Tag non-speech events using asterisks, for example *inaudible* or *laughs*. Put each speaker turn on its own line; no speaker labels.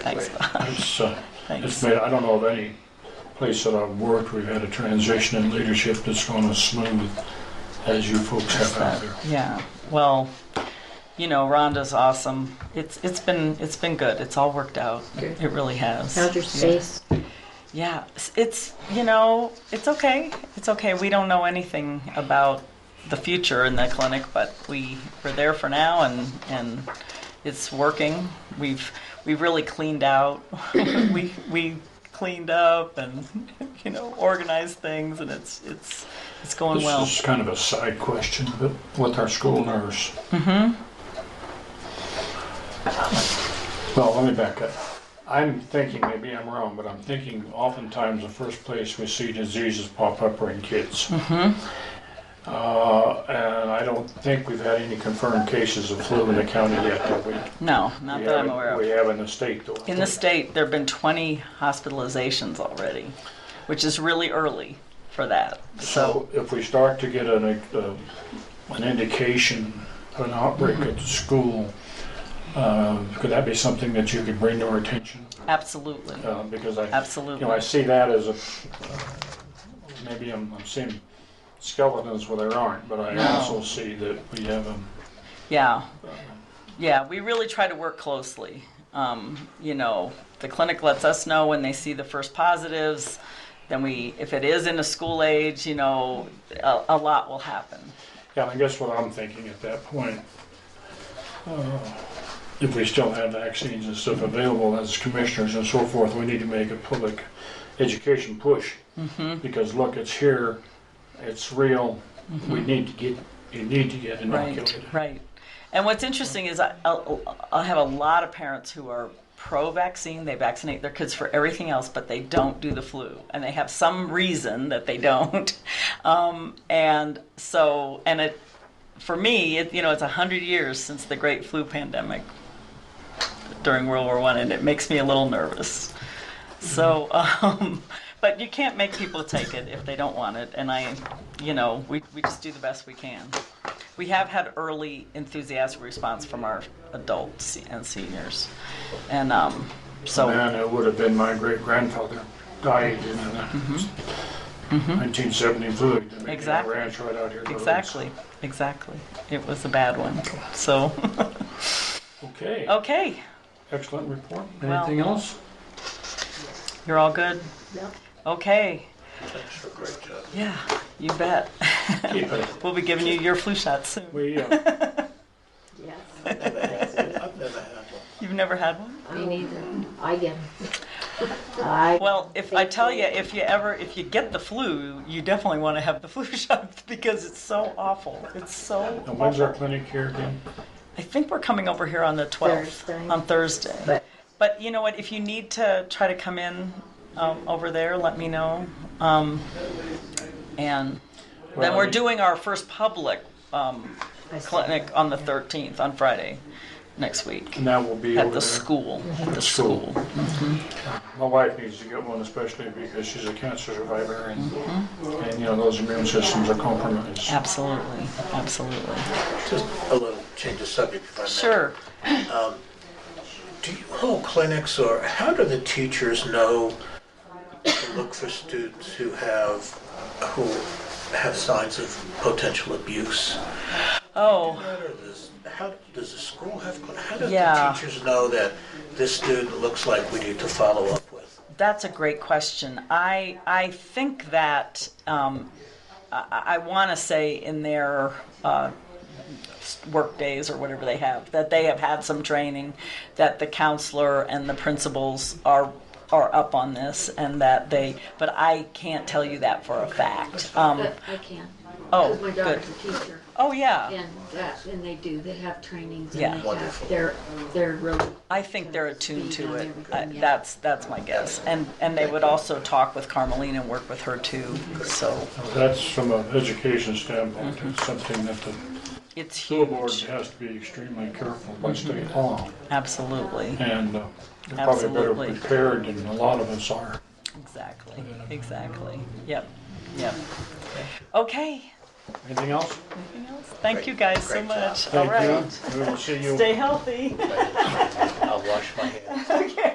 Thanks.
It's, uh, it's
*laughs* Thanks.
made, I don't know of any place that I've worked, we've had a transition in leadership that's gone as smooth as you folks have out there.
Yeah. Well, you know, Rhonda's awesome. It's it's been it's been good. It's all worked out.
Good.
It really has.
How's your space?
Yeah, s- it's, you know, it's okay. It's okay. We don't know anything about the future in the clinic, but we we're there for now and and it's working. We've we really cleaned out. *laughs* we we cleaned up and *laughs* you know, organized things and it's it's it's going
This
well.
is kind of a side question, but with our school nurse. Mm-hmm. Well, let me back up. I'm thinking, maybe I'm wrong, but I'm thinking oftentimes the first place we see diseases pop up are in kids. Mm-hmm. Uh, and I don't think we've had any confirmed cases of flu in the county yet, have we?
No, not
We
that I'm
haven't-
aware of.
We have in the state though.
In the state, there've been 20 hospitalizations already, which is really early for that.
So if we start to get an, uh, an indication of an outbreak at the school, uh, could that be something that you could bring to our attention?
Absolutely.
Uh, Because I, you
Absolutely.
know, I see that as a, maybe I'm I'm seeing skeletons where there aren't, but I
No.
also see that we have um,
Yeah. Yeah, we really try to work closely. Um, you know, the clinic lets us know when they see the first positives. Then we, if it is in a school age, you know, a, a lot will happen.
Yeah, I guess what I'm thinking at that point, uh, if we still have vaccines and stuff available as commissioners and so forth, we need to make a public education push.
Mm-hmm.
Because look, it's here, it's real, we need to get, you need to get inoculated.
Mm-hmm. Right, right. And what's interesting is I, I'll, I'll have a lot of parents who are pro-vaccine. They vaccinate their kids for everything else, but they don't do the flu, and they have some reason that they don't. *laughs* Um, and so, and it, for me, it, you know, it's a hundred years since the Great Flu Pandemic during World War One, and it makes me a little nervous. So, um, *laughs* but you can't make people take it if they don't want it, and I, you know, we, we just do the best we can. We have had early enthusiastic response from our adults and seniors, and um, so
Man, it would have been my great grandfather died in the nineteen seventy flu. epidemic. He
Mm-hmm. Exactly.
Ranch right out here. in the woods.
exactly, exactly, it was a bad one. So *laughs*
Okay,
okay,
excellent report.
Oh. Well-
Anything else?
you're all good.
No.
Okay,
Thanks for a great job.
yeah, you bet.
Keep
*laughs*
it.
we'll be giving you your flu shot soon.
We, uh,
Yes.
I've never had one.
*laughs* You've never had one.
Me neither. I get 'em. I
Well, if I tell you, if you ever, if you get the flu, you definitely want to have the *laughs* flu shot because it's so awful. It's so.
and when's our clinic here again?
I think we're coming over here on the 12th,
Thursday.
on Thursday.
But
But you know what? If you need to try to come in um, over there, let me know. Um, and then
Well,
we're
you-
doing our first public um,
I see.
clinic on the 13th, on Friday next week.
And that will be over
At the
there.
school. At the
school.
school.
My wife needs to get one, especially because she's a cancer survivor, and,
Mm-hmm.
and you know those immune systems are compromised.
Absolutely. Absolutely.
Just a little change of subject if I may.
Sure.
Do you hold clinics or how do the teachers know to look for students who have, who have signs of potential abuse?
Oh.
Or does- How, does the school have, how do
Yeah.
the teachers know that this student looks like we need to follow up with?
That's a great question. I I think that um, I, I want to say in their uh, work days or whatever they have that they have had some training, that the counselor and the principals are are up on this and that they. But I can't tell you that for a fact. Um,
But I can.
oh,
Because my
good.
daughter's a teacher,
Oh yeah.
and that, and they do, they have trainings,
Yeah.
and they have,
Wonderful.
they're, they're really.
I think they're attuned to it. I,
Yeah.
that's that's my guess. And and they would also talk with Carmelina and work with her too. So
That's from an education standpoint.
Mm-hmm.
It's something that the
it's
school board
huge.
has to be extremely careful by
Mm-hmm.
state law,
Absolutely.
and uh, they're probably better
Absolutely.
prepared than a lot of us are.
Exactly. Exactly. Yep. Yep. Okay.
Anything else?
Anything else? Thank you guys so
Great job.
much. All
Thank
right. *laughs*
you. We will see you.
Stay healthy.
I'll wash my hands.
okay.